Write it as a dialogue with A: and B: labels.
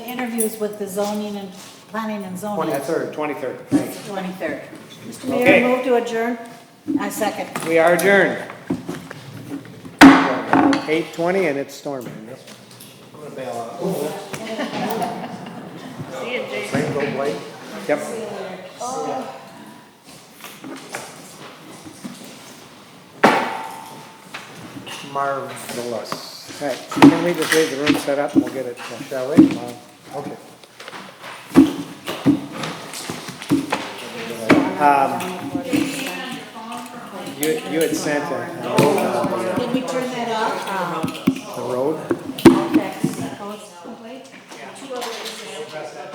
A: interviews with the zoning and planning and zoning.
B: Twenty-third, twenty-third, thanks.
A: 23rd. Mr.
B: Okay.
A: Mayor, move to adjourn. I second.
B: We are adjourned. Eight twenty and it's storming. Rainbow Blake? Yep. Marvelous. All right, so can we just leave the room set up and we'll get it, uh, shall we? Uh, Okay. You, you had sent a,
A: Did we turn that off?
B: the road?